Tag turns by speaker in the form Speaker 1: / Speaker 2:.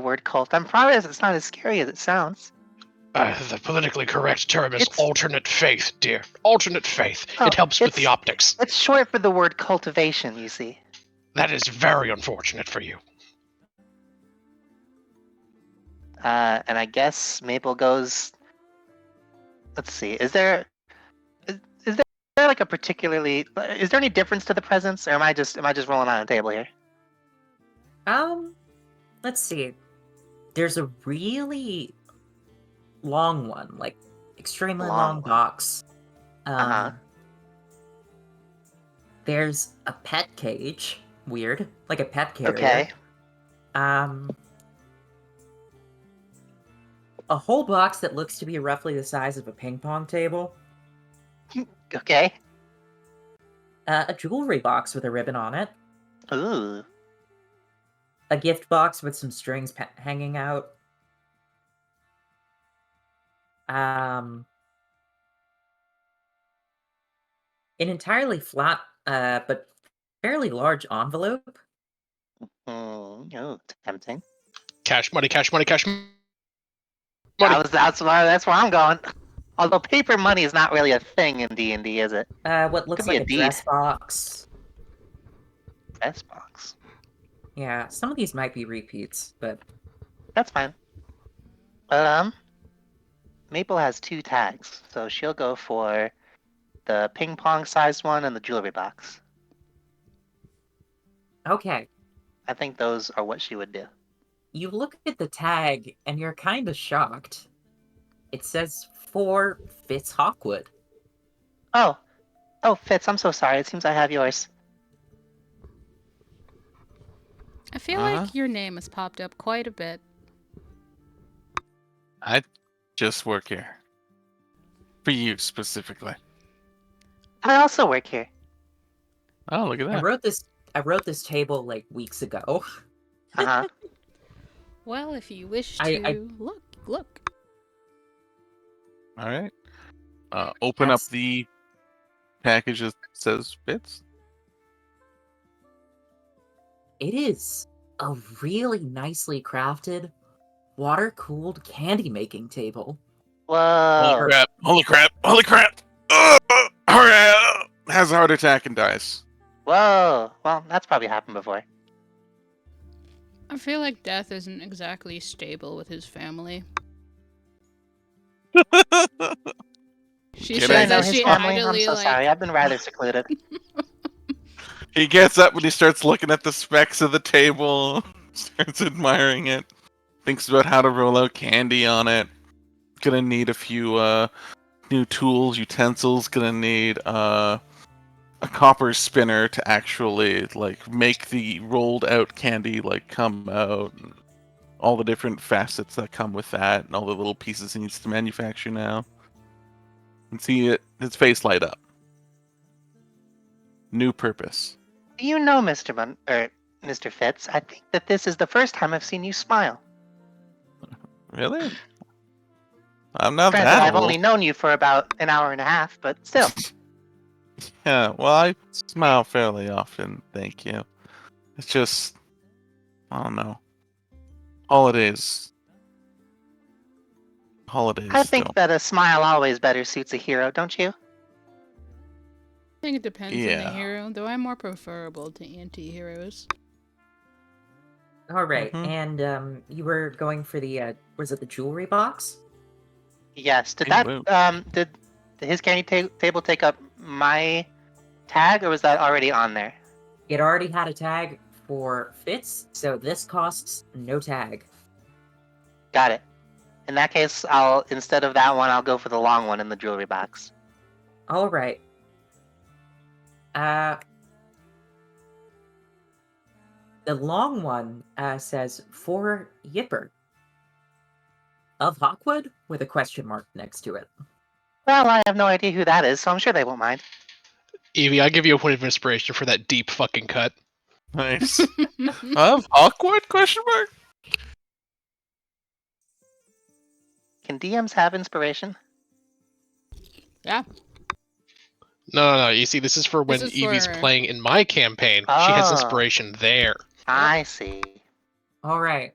Speaker 1: word cult. I promise it's not as scary as it sounds.
Speaker 2: Uh, the politically correct term is
Speaker 1: It's-
Speaker 2: alternate faith, dear. Alternate faith.
Speaker 1: Oh,
Speaker 2: it helps with
Speaker 1: it's-
Speaker 2: the optics.
Speaker 1: It's short for the word cultivation, you see.
Speaker 2: That is very unfortunate for you.
Speaker 1: Uh, and I guess Maple goes. Let's see. Is there is, is there like a particularly is there any difference to the presents, or am I just am I just rolling on a table here?
Speaker 3: Um, let's see. There's a really long one, like extremely
Speaker 1: Long
Speaker 3: long,
Speaker 1: one.
Speaker 3: box. Um,
Speaker 1: Uh-huh.
Speaker 3: There's a pet cage. Weird, like a pet carrier.
Speaker 1: Okay.
Speaker 3: Um, a whole box that looks to be roughly the size of a ping pong table.
Speaker 1: Okay.
Speaker 3: Uh, a jewelry box with a ribbon on it.
Speaker 1: Ooh.
Speaker 3: A gift box with some strings pa- hanging out. Um, an entirely flat uh, but fairly large envelope.
Speaker 1: Mm, ooh. Tempting.
Speaker 2: Cash money, cash money, cash money.
Speaker 1: That was, that's where that's where I'm going. Although paper money is not really a thing in D and D, is it?
Speaker 3: Uh, what looks
Speaker 1: Could be
Speaker 3: like
Speaker 1: a
Speaker 3: a
Speaker 1: deed.
Speaker 3: dress box.
Speaker 1: Press box.
Speaker 3: Yeah, some of these might be repeats, but
Speaker 1: That's fine. Um, Maple has two tags, so she'll go for the ping pong sized one and the jewelry box.
Speaker 3: okay.
Speaker 1: I think those are what she would do.
Speaker 3: You look at the tag and you're kind of shocked. It says for Fitz Hawkwood.
Speaker 1: Oh, oh, Fitz, I'm so sorry. It seems I have yours.
Speaker 4: I feel
Speaker 5: Uh-huh.
Speaker 4: like your name has popped up quite a bit.
Speaker 5: I just work here. For you specifically.
Speaker 1: I also work here.
Speaker 5: Oh, look at
Speaker 3: I
Speaker 5: that.
Speaker 3: wrote this. I wrote this table like weeks ago.
Speaker 1: Uh huh.
Speaker 4: Well, if you wish to
Speaker 3: I- I-
Speaker 4: look, look.
Speaker 5: All right. Uh, open up
Speaker 3: That's-
Speaker 5: the package that says bits.
Speaker 3: It is a really nicely crafted, water cooled candy making table.
Speaker 1: Whoa.
Speaker 5: Holy crap! Holy crap! Holy crap! Ugh! Hurry up! Has a heart attack and dies.
Speaker 1: Whoa. Well, that's probably happened before.
Speaker 4: I feel like Death isn't exactly stable with his family. She says
Speaker 5: Can
Speaker 1: Should I
Speaker 5: I-
Speaker 1: know
Speaker 4: that
Speaker 1: his
Speaker 4: she
Speaker 1: family? I'm
Speaker 4: idly
Speaker 1: so
Speaker 4: like
Speaker 1: sorry. I've been rather secluded.
Speaker 5: He gets up and he starts looking at the specs of the table, starts admiring it, thinks about how to roll out candy on it. Gonna need a few uh, new tools, utensils. Gonna need uh, a copper spinner to actually like make the rolled out candy like come out. And all the different facets that come with that, and all the little pieces he needs to manufacture now. And see it, his face light up. New purpose.
Speaker 1: Do you know, Mr. Mun or Mr. Fitz? I think that this is the first time I've seen you smile.
Speaker 5: Really? I'm not
Speaker 1: Granted,
Speaker 5: that
Speaker 1: I've
Speaker 5: old.
Speaker 1: only known you for about an hour and a half, but still.
Speaker 5: Yeah, well, I smile fairly often, thank you. It's just, I don't know. Holidays. Holidays.
Speaker 1: I think
Speaker 5: don't-
Speaker 1: that a smile always better suits a hero, don't you?
Speaker 4: I think it depends on
Speaker 5: Yeah.
Speaker 4: the hero, though I'm more preferable to anti heroes.
Speaker 3: All right,
Speaker 5: Mhm.
Speaker 3: and um, you were going for the uh, was it the jewelry box?
Speaker 1: Yes. Did
Speaker 5: Hey,
Speaker 1: that
Speaker 5: Luke.
Speaker 1: um did did his candy ta- table take up my tag, or was that already on there?
Speaker 3: It already had a tag for Fitz, so this costs no tag.
Speaker 1: Got it. In that case, I'll instead of that one, I'll go for the long one in the jewelry box.
Speaker 3: All right. Uh, the long one uh, says for Yipper of Hawkwood with a question mark next to it.
Speaker 1: Well, I have no idea who that is, so I'm sure they won't mind.
Speaker 2: Evie, I give you a point of inspiration for that deep fucking cut.
Speaker 5: Nice. of awkward question mark?
Speaker 1: Can DMs have inspiration?
Speaker 2: No, no, no. You see, this is for when
Speaker 4: This is
Speaker 2: Evie's
Speaker 4: for-
Speaker 2: playing in my campaign. She has
Speaker 1: Ah.
Speaker 2: inspiration there.
Speaker 1: I see.
Speaker 3: All right.